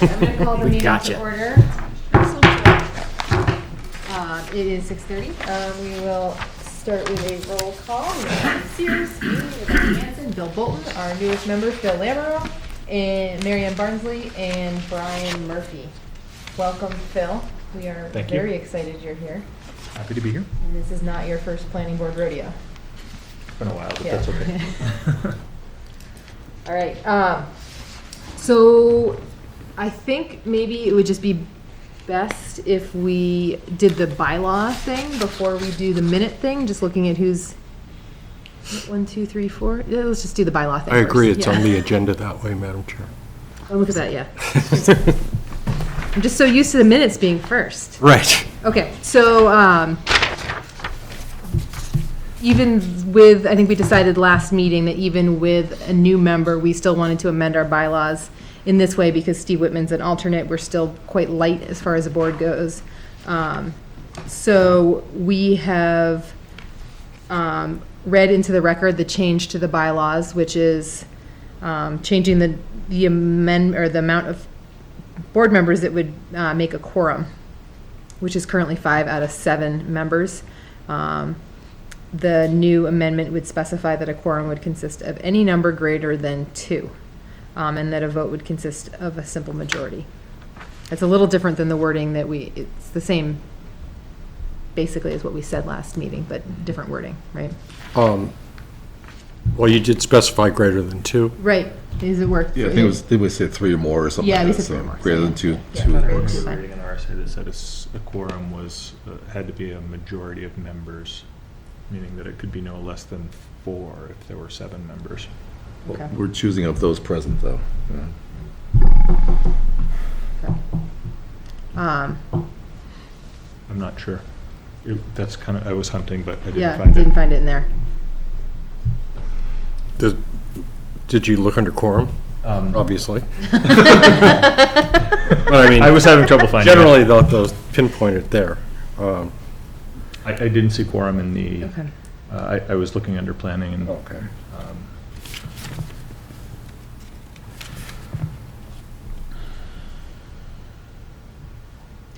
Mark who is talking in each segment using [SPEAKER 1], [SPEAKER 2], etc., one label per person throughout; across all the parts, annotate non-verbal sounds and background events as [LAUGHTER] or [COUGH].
[SPEAKER 1] I'm gonna call the
[SPEAKER 2] We
[SPEAKER 1] meeting
[SPEAKER 2] gotcha.
[SPEAKER 1] to order. Um, It is six thirty. Um, We will start with a roll call. We have Sears, Lee, Rebecca Hanson, Bill Bolton, our newest member, Phil Lamoreaux, and Mary Ann Barnsley, and Brian Murphy. Welcome, Phil. We are
[SPEAKER 2] Thank you.
[SPEAKER 1] very excited you're here.
[SPEAKER 2] Happy to be here.
[SPEAKER 1] And this is not your first planning board rodeo.
[SPEAKER 2] It's been a while, but
[SPEAKER 1] Yeah.
[SPEAKER 2] that's okay.
[SPEAKER 1] [LAUGHS] All right, um, so I think maybe it would just be best if we did the bylaw thing before we do the minute thing, just looking at who's, one, two, three, four, yeah, let's just do the bylaw thing
[SPEAKER 3] I agree,
[SPEAKER 1] first.
[SPEAKER 3] it's
[SPEAKER 1] Yeah.
[SPEAKER 3] on the
[SPEAKER 1] [LAUGHS]
[SPEAKER 3] agenda that way, Madam Chair.
[SPEAKER 1] Oh, look at that, yeah. [LAUGHS] I'm just so used to the minutes being first.
[SPEAKER 3] Right.
[SPEAKER 1] Okay, so, um, even with, I think we decided last meeting that even with a new member, we still wanted to amend our bylaws in this way because Steve Whitman's an alternate, we're still quite light as far as the board goes. Um, so we have, um, read into the record the change to the bylaws, which is, um, changing the, the amend, or the amount of board members that would, uh, make a quorum which is currently five out of seven members. Um, The new amendment would specify that a quorum would consist of any number greater than two, um, and that a vote would consist of a simple majority. It's a little different than the wording that we, it's the same, basically, as what we said last meeting, but different wording, right?
[SPEAKER 3] Um, Well, you did specify greater than two.
[SPEAKER 1] Right, is it work?
[SPEAKER 4] Yeah, I think it was, they would say three or more or something
[SPEAKER 1] Yeah,
[SPEAKER 4] like
[SPEAKER 1] we
[SPEAKER 4] that,
[SPEAKER 1] said three or
[SPEAKER 4] so
[SPEAKER 1] more, so
[SPEAKER 4] greater
[SPEAKER 1] yeah.
[SPEAKER 4] than two,
[SPEAKER 1] Yeah,
[SPEAKER 4] two
[SPEAKER 1] okay.
[SPEAKER 4] or
[SPEAKER 1] It's
[SPEAKER 5] We were
[SPEAKER 1] fine.
[SPEAKER 5] reading an RSA that said a s- a quorum was, uh, had to be a majority of members, meaning that it could be no less than four if there were seven members.
[SPEAKER 1] Okay.
[SPEAKER 4] We're choosing of those present, though. yeah.
[SPEAKER 1] Um,
[SPEAKER 5] I'm not sure. It- That's kind of, I was hunting, but I didn't
[SPEAKER 1] Yeah,
[SPEAKER 5] find it.
[SPEAKER 1] didn't find it in there.
[SPEAKER 3] [LAUGHS] Did did you look under quorum,
[SPEAKER 5] Um,
[SPEAKER 3] obviously? But I mean,
[SPEAKER 5] I was having trouble finding it.
[SPEAKER 3] Generally, tho- those pinpointed there. Um,
[SPEAKER 5] I, I didn't see quorum in the,
[SPEAKER 1] Okay.
[SPEAKER 5] uh, I, I was looking under planning and.
[SPEAKER 3] Okay.
[SPEAKER 5] um,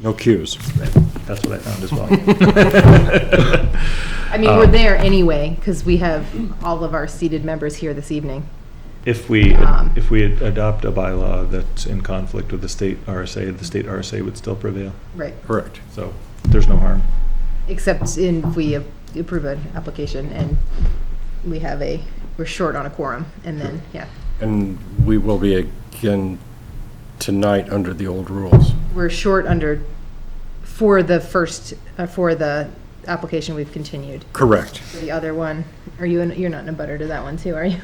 [SPEAKER 3] No cues.
[SPEAKER 5] That's what I found as well.
[SPEAKER 1] [LAUGHS]
[SPEAKER 5] Um,
[SPEAKER 1] I mean,
[SPEAKER 3] Um,
[SPEAKER 1] we're there anyway, because we have all of our seated members here this evening.
[SPEAKER 5] If we,
[SPEAKER 1] Um,
[SPEAKER 5] if we ad- adopt a bylaw that's in conflict with the state RSA, the state RSA would still prevail.
[SPEAKER 1] Right.
[SPEAKER 3] Correct.
[SPEAKER 5] So there's no harm.
[SPEAKER 1] Except in, if we approve an application and we have a, we're short on a quorum, and then, yeah,
[SPEAKER 3] And we will be again tonight under the old rules.
[SPEAKER 1] we're short under, for the first, uh, for the application we've continued.
[SPEAKER 3] Correct.
[SPEAKER 1] For the other one, are you, in- you're not in a butter to that one too, are you?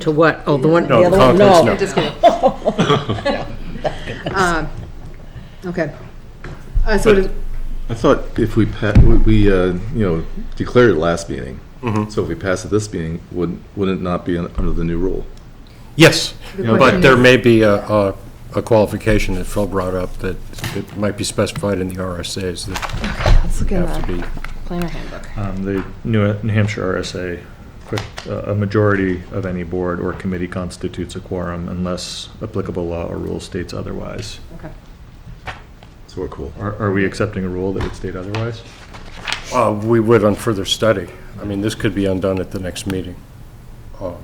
[SPEAKER 6] To what? Oh, the one, the
[SPEAKER 3] No,
[SPEAKER 6] other one?
[SPEAKER 3] conference,
[SPEAKER 6] No.
[SPEAKER 3] no.
[SPEAKER 1] Just kidding. Um, Okay. Uh, so, does-
[SPEAKER 4] I thought if we, pa- we- we, uh, you know, declared it last meeting, so if we pass it this meeting, wouldn't, wouldn't it not be un- under the new rule?
[SPEAKER 3] Yes,
[SPEAKER 1] The
[SPEAKER 3] but
[SPEAKER 1] question
[SPEAKER 3] there
[SPEAKER 1] is-
[SPEAKER 3] may be a- a a qualification that Phil brought up that it might be specified in the RSAs that
[SPEAKER 1] let's look
[SPEAKER 3] have
[SPEAKER 1] at
[SPEAKER 3] to
[SPEAKER 1] the
[SPEAKER 3] be
[SPEAKER 1] planner handbook.
[SPEAKER 5] Um, The New New Hampshire RSA, quick, uh, a majority of any board or committee constitutes a quorum unless applicable law or rule states otherwise.
[SPEAKER 1] Okay.
[SPEAKER 4] So we're cool.
[SPEAKER 5] Are are we accepting a rule that would state otherwise?
[SPEAKER 3] Uh, We would on further study. I mean, this could be undone at the next meeting. Um,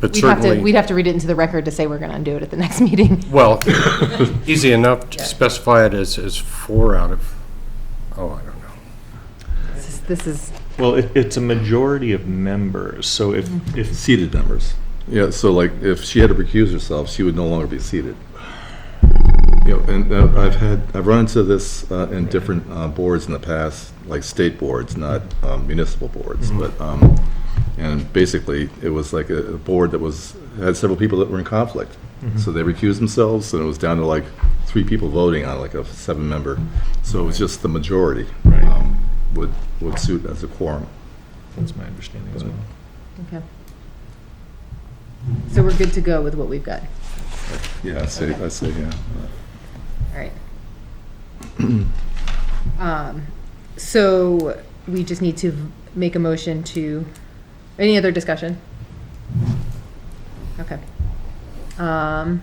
[SPEAKER 3] But
[SPEAKER 1] We'd have to, we'd
[SPEAKER 3] certainly,
[SPEAKER 1] have to read it into the record to say we're going to undo it at the [LAUGHS] next meeting. [LAUGHS]
[SPEAKER 3] well, easy enough to specify it as, as four out of, oh, I don't know.
[SPEAKER 1] This is- This is,
[SPEAKER 5] Well, it- it's a majority of members, so if, if,
[SPEAKER 4] Seated members. Yeah, so like, if she had to recuse herself, she would no longer be seated. You know, and uh, I've had, I've run into this uh, in different uh, boards in the past, like state boards, not um, municipal boards, but, um, and basically, it was like a a board that was, had several people that were in conflict. So they recused themselves, and it was down to like three people voting on like a seven-member. So it was just the majority um, would, would suit as a quorum.
[SPEAKER 5] that's my understanding as well.
[SPEAKER 1] okay. So we're good to go with what we've got.
[SPEAKER 4] Yeah, I say, I say, yeah.
[SPEAKER 1] All
[SPEAKER 3] [CLEARS THROAT]
[SPEAKER 1] right. Um, So we just need to v- make a motion to, any other discussion? Okay. Um,